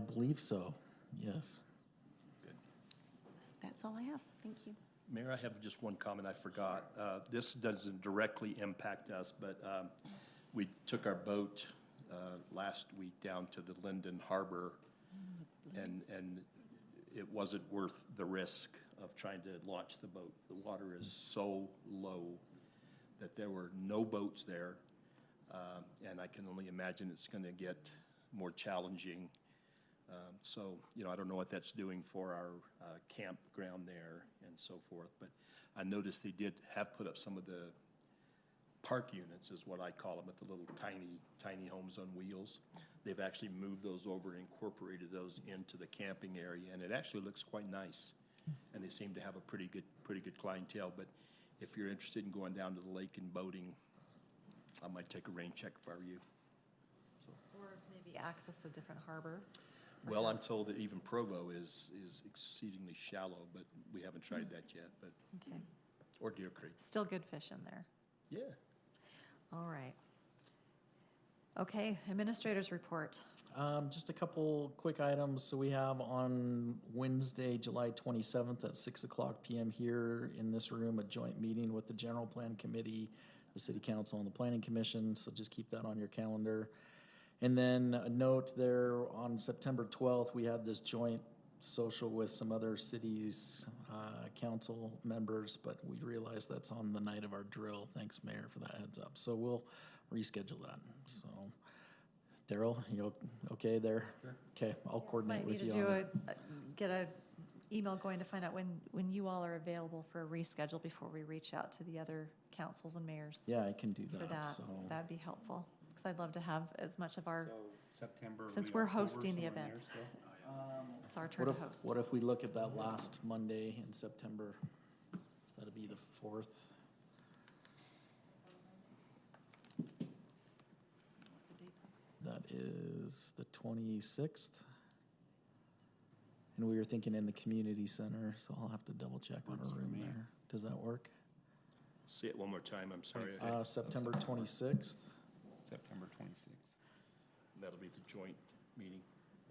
believe so, yes. That's all I have. Thank you. Mayor, I have just one comment I forgot. Uh, This doesn't directly impact us, but um, we took our boat uh, last week down to the Linden Harbor, and, and it wasn't worth the risk of trying to launch the boat. The water is so low that there were no boats there, um, and I can only imagine it's going to get more challenging. Um, So, you know, I don't know what that's doing for our uh, campground there and so forth, but I noticed they did have put up some of the park units, is what I call them, at the little tiny, tiny homes on wheels. They've actually moved those over and incorporated those into the camping area, and it actually looks quite nice. And they seem to have a pretty good, pretty good clientele, but if you're interested in going down to the lake and boating, I might take a rain check if I were you. Or maybe access a different harbor. Well, I'm told that even Provo is, is exceedingly shallow, but we haven't tried that yet, but, Okay, or Deer Creek. still good fish in there. Yeah. All right. Okay, administrators report. Um, just a couple quick items. So we have on Wednesday, July twenty-seventh at six o'clock PM here in this room, a joint meeting with the General Plan Committee, the City Council and the Planning Commission, so just keep that on your calendar. And then a note there, on September twelfth, we had this joint social with some other cities, uh, council members, but we realized that's on the night of our drill. Thanks, Mayor, for that heads up. So we'll reschedule that, so. Daryl, you o- okay there? Okay, I'll coordinate Might need with to you do on a, it. a- get a email going to find out when, when you all are available for a reschedule before we reach out to the other councils and mayors Yeah, I can do for that, that. so. That'd be helpful, because I'd love to have as much of our, So September. Since we we're October, hosting the somewhere in event. there still? Um, it's our turn What to if, host. what if we look at that last Monday in September? So that'd be the fourth. That is the twenty-sixth. And we were thinking in the community center, so I'll have to double check on a Works for room me. there. Does that work? Say it one more time, I'm sorry. Twenty-six. Uh, September twenty-sixth? September twenty-sixth. That'll be the joint meeting.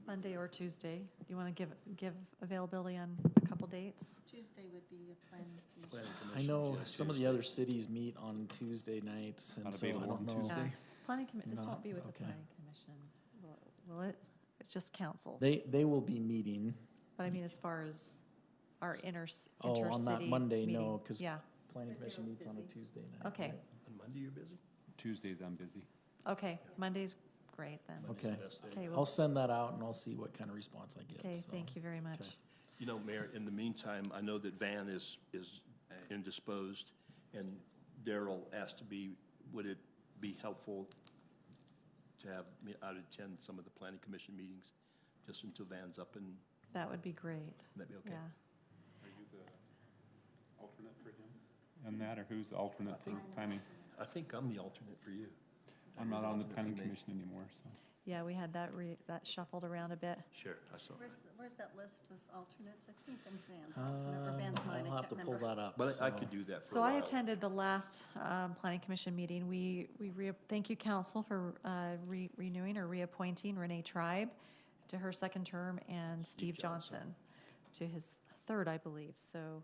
Monday or Tuesday, do you want to give, give availability on a couple dates? Tuesday would be a planning commission. Planning I Commission's know on some of the Tuesday. other cities meet on Tuesday nights, and Not so I available don't on know. Tuesday? No. Uh, Planning commi, this Not- won't be with the okay. planning commission, will- will it? It's just councils. They, they will be meeting. But I mean, as far as our inter, Oh, inter-city. on that Monday, no, meeting. 'cause- Yeah, Planning But Commission Daryl's meets on a busy. Tuesday night. Okay. right? On Monday, you're busy? Tuesdays, I'm busy. okay, Monday's great then. Monday's the Okay. best day. Okay, I'll well, send that out and I'll see what kind of response I get. okay, so. thank you very much. Okay. You know, Mayor, in the meantime, I know that Van is, is indisposed, and Daryl asked to be, would it be helpful to have me, I'd attend some of the planning commission meetings, just until Van's up and, That would be great, that'd be okay? yeah. Are you the alternate for him? And that, or who's the alternate for planning? I think I'm the alternate for you. I'm not on the planning For me. commission anymore, so. Yeah, we had that re, that shuffled around a bit. Sure, I saw. Where's, th- where's that list with alternates? I think I'm Van's alternate, or Um, Van's mine, I'll I have can't to pull remember. that up. But I I so- could do that for a So I while. attended the last, um, planning commission meeting. We, we re, thank you, council, for, uh, re, renewing or reappointing Renee Tribe to her second term and Steve Johnson. Johnson to his third, I believe, so,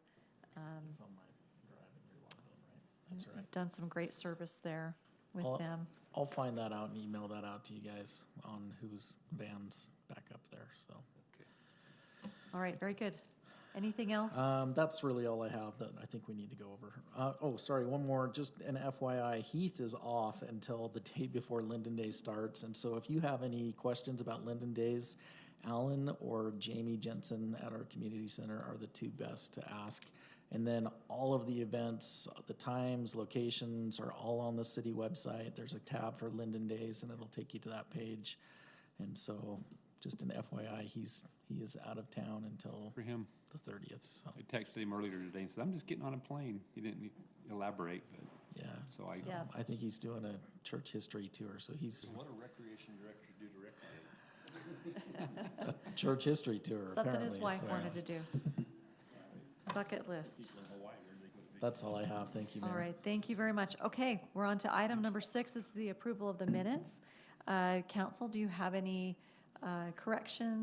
um, It's on my drive and you're logged in, right? That's right. done some great service there I'll- with them. I'll find that out and email that out to you guys on whose van's back up there, so. All right, very good. Anything else? Um, that's really all I have that I think we need to go over. Uh, oh, sorry, one more, just an FYI, Heath is off until the day before Linden Day starts. And so if you have any questions about Linden Days, Alan or Jamie Jensen at our community center are the two best to ask. And then all of the events, the times, locations are all on the city website. There's a tab for Linden Days and it'll take you to that page. And so just an FYI, he's, he is out of town until For him, the thirtieth, so. I texted him earlier today, and said, I'm just getting on a plane. He didn't e-, elaborate, but Yeah. So I- Yeah. I think he's doing a church history tour, so he's What a recreation director do to recreate? a church history tour Something apparently. his wife so wanted to do. Bucket list. That's all I have. Thank you, Mayor. All right, thank you very much. Okay, we're on to item number six, this is the approval of the minutes. Uh, Council, do you have any uh, corrections?